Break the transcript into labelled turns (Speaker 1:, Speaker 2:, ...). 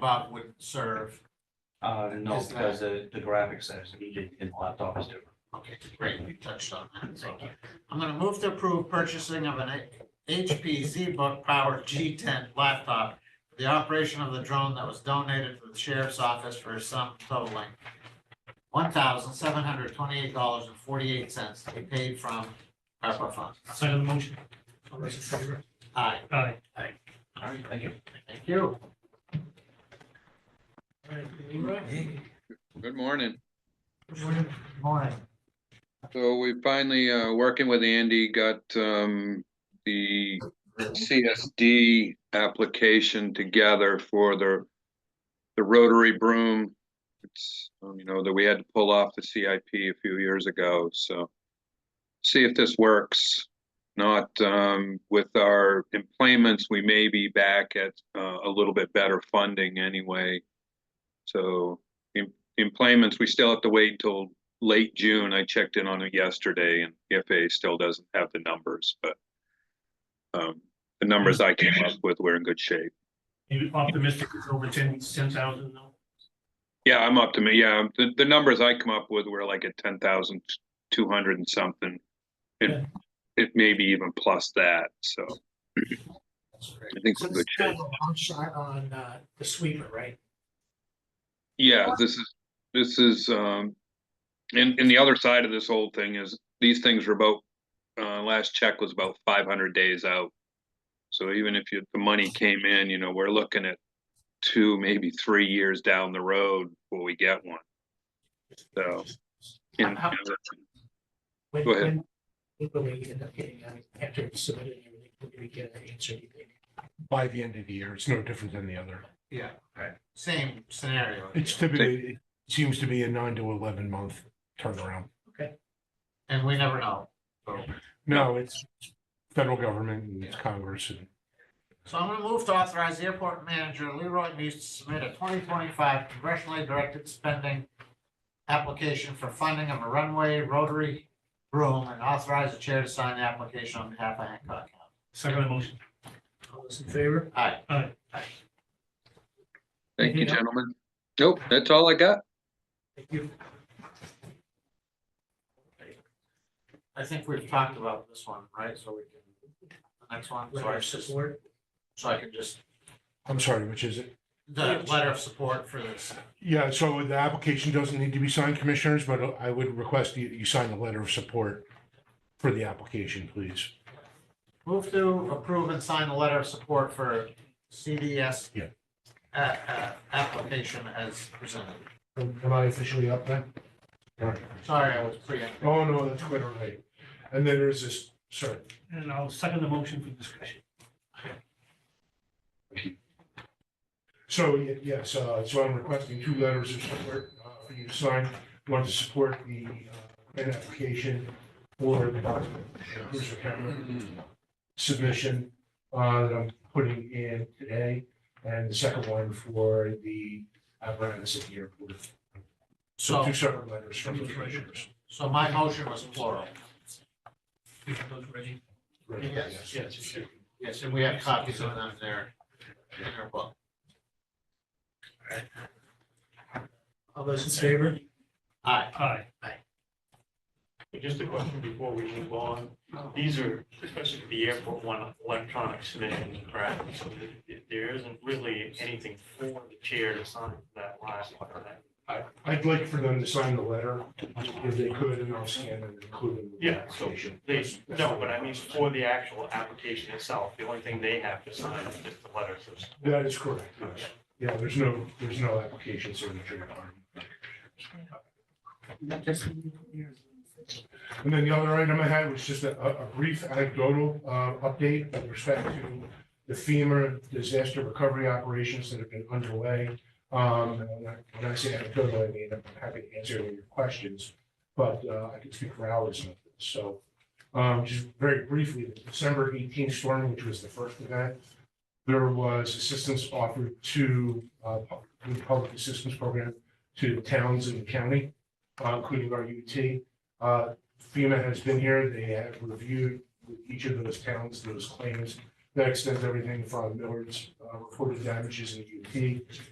Speaker 1: Bob would serve.
Speaker 2: Uh, no,
Speaker 1: Is that-
Speaker 2: because the, the graphics that is needed in the laptop is different.
Speaker 1: Okay, great, we touched on that, thank you. I'm gonna move to approve purchasing of an HP ZBook powered G ten laptop. for The operation of the drone that was donated to the sheriff's office for a sum totaling one thousand seven hundred twenty-eight dollars and forty-eight cents to be paid from ARPA funds.
Speaker 3: Second the motion. All those in favor?
Speaker 1: Aye,
Speaker 3: Aye.
Speaker 2: All right, thank you.
Speaker 1: thank you.
Speaker 3: All right, Leroy?
Speaker 4: Good morning.
Speaker 1: Good Morning.
Speaker 4: So we finally, uh, working with Andy, got, um, the CSD application together for the, the rotary broom. It's, um, you know, that we had to pull off the CIP a few years ago, so see if this works. Not, um, with our employments, we may be back at, uh, a little bit better funding anyway. So em- employments, we still have to wait until late June. I checked in on it yesterday and the FAA still doesn't have the numbers, but um, the numbers I came up with were in good shape.
Speaker 3: You optimistic it's over ten, ten thousand now?
Speaker 4: Yeah, I'm up to me. Yeah, the, the numbers I come up with were like at ten thousand two hundred and something.
Speaker 3: Yeah.
Speaker 4: It, it may be even plus that, so
Speaker 1: That's great.
Speaker 4: I think
Speaker 3: So
Speaker 4: we're
Speaker 3: this
Speaker 4: in
Speaker 3: is
Speaker 4: good shape.
Speaker 3: kind of a long shot on, uh, the sweeper, right?
Speaker 4: Yeah, this is, this is, um, and, and the other side of this whole thing is, these things were about, uh, last check was about five hundred days out. So even if you, the money came in, you know, we're looking at two, maybe three years down the road before we get one. So. and-
Speaker 3: How- When,
Speaker 4: Go ahead.
Speaker 3: when, when we end up getting, uh, after it's submitted and everything, when do we get an answer, do you think?
Speaker 5: by the end of the year. It's no different than the other.
Speaker 1: Yeah.
Speaker 2: Right.
Speaker 1: Same scenario.
Speaker 5: It's typically, it seems to be a nine to eleven month turnaround.
Speaker 1: And we never know. So-
Speaker 5: No, it's federal government and it's Congress and
Speaker 1: So I'm gonna move to authorize the airport manager Leroy Muse to submit a twenty twenty-five congressionally directed spending application for funding of a runway rotary room and authorize the chair to sign the application on behalf of Hancock County.
Speaker 3: Second motion. All those in favor?
Speaker 1: Aye.
Speaker 3: Aye.
Speaker 4: Thank you,
Speaker 3: Anything else?
Speaker 4: gentlemen. Nope, that's all I got.
Speaker 3: Thank you.
Speaker 1: I think we've talked about this one, right? So we can, the next one, so
Speaker 3: Letter
Speaker 1: I
Speaker 3: of
Speaker 1: just,
Speaker 3: support.
Speaker 1: so I can just,
Speaker 5: I'm sorry, which is it?
Speaker 1: the letter of support for this.
Speaker 5: Yeah, so the application doesn't need to be signed, commissioners, but I would request you, you sign the letter of support for the application, please.
Speaker 1: Move to approve and sign the letter of support for CDS
Speaker 5: Yeah.
Speaker 1: uh, uh, application as presented.
Speaker 5: Am I officially up then? All right.
Speaker 1: Sorry, I was preempting.
Speaker 5: Oh, no, that's quite all right. And then there's this, sorry.
Speaker 3: And I'll second the motion for discussion.
Speaker 5: So, y- yes, uh, so I'm requesting two letters of support uh, for you to sign, one to support the uh, grant application for the uh, cruiser camera submission uh, that I'm putting in today, and the second one for the apparatus at the airport. So
Speaker 1: So,
Speaker 5: two separate letters from the commissioners.
Speaker 1: so my motion was plural.
Speaker 3: We have those ready.
Speaker 5: Right,
Speaker 1: Yes,
Speaker 3: yes.
Speaker 1: Yes, and we have copies of them there in our book.
Speaker 3: All those in favor?
Speaker 1: Aye.
Speaker 3: Aye.
Speaker 6: Just a question before we move on. These are, especially the airport one, electronic submission, correct? So th- There isn't really anything for the chair to sign for that last one. right?
Speaker 5: I- I'd like for them to sign the letter if they could, and I'll scan it and include it. in the
Speaker 6: Yeah, so
Speaker 5: application.
Speaker 6: they, no, but I mean for the actual application itself, the only thing they have to sign is just the letters.
Speaker 5: That is correct, yes. Yeah, there's no, there's no application signature requirement. And then the other item I had was just a, a a brief anecdotal, uh, update with respect to the FEMA disaster recovery operations that have been underway. Um, and when I- when I say anecdotal, I mean, I'm happy to answer any of your questions, but, uh, I can speak for hours on this. So, um, just very briefly, the December eighteen storm, which was the first event, there was assistance offered to, uh, pub- the public assistance program to towns in the county, uh, including our UT. Uh, FEMA has been here, they have reviewed with each of those towns, those claims. That extends everything from Millard's uh, reported damages in the UT